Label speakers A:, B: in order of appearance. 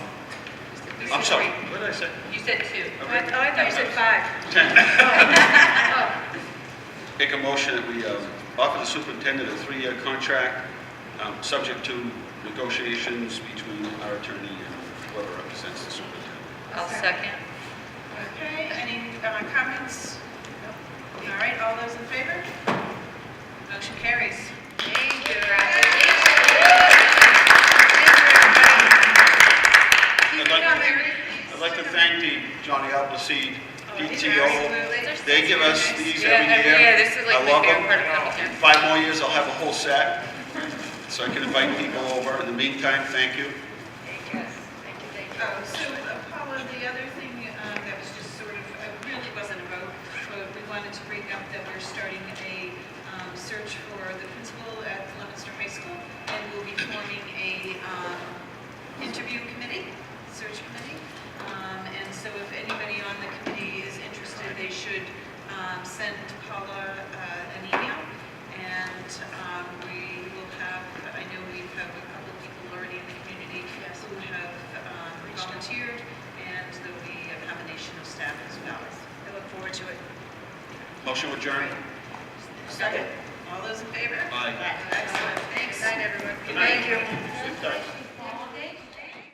A: I'm sorry, what did I say?
B: You said two.
A: Okay.
C: I I thought you said five.
A: Ten.
C: Oh,
A: Make a motion that we um, offer the superintendent a three-year contract, um, subject to negotiations between our attorney and whoever represents the superintendent.
B: I'll second.
C: Okay, any uh, comments? Nope. All right, all those in favor? Motion carries.
B: Thank you,
C: Keep
A: I'd
C: it
A: like to-
C: up, Mary.
A: I'd like to thank the Johnny Appleseed
C: Oh, these are
A: PTO.
C: absolutely-
A: They give us these
B: Yeah,
A: every year.
B: yeah, this is like
A: I
B: my
A: love
B: favorite
A: them.
B: part of Appleton.
A: In Five more years, I'll have a whole set, so I can invite people over. In the meantime, thank you.
B: Thank you, thank you, thank you.
C: Oh, So uh, Paula, the other thing uh, that was just sort of, uh, really wasn't a vote, but we wanted to bring up that we're starting a um, search for the principal at Lemonster High School, and we'll be forming a um, interview committee, search committee. Um, And so if anybody on the committee is interested, they should um, send Paula uh, an email, and um, we will have, I know we have a couple people already in the community who have um, volunteered, and there'll be a combination of staff as well. I look forward to it.
A: Motion adjourned.
C: Second. All those in favor?
A: Aye.
C: Excellent, thanks. Night, everyone.
A: Good night.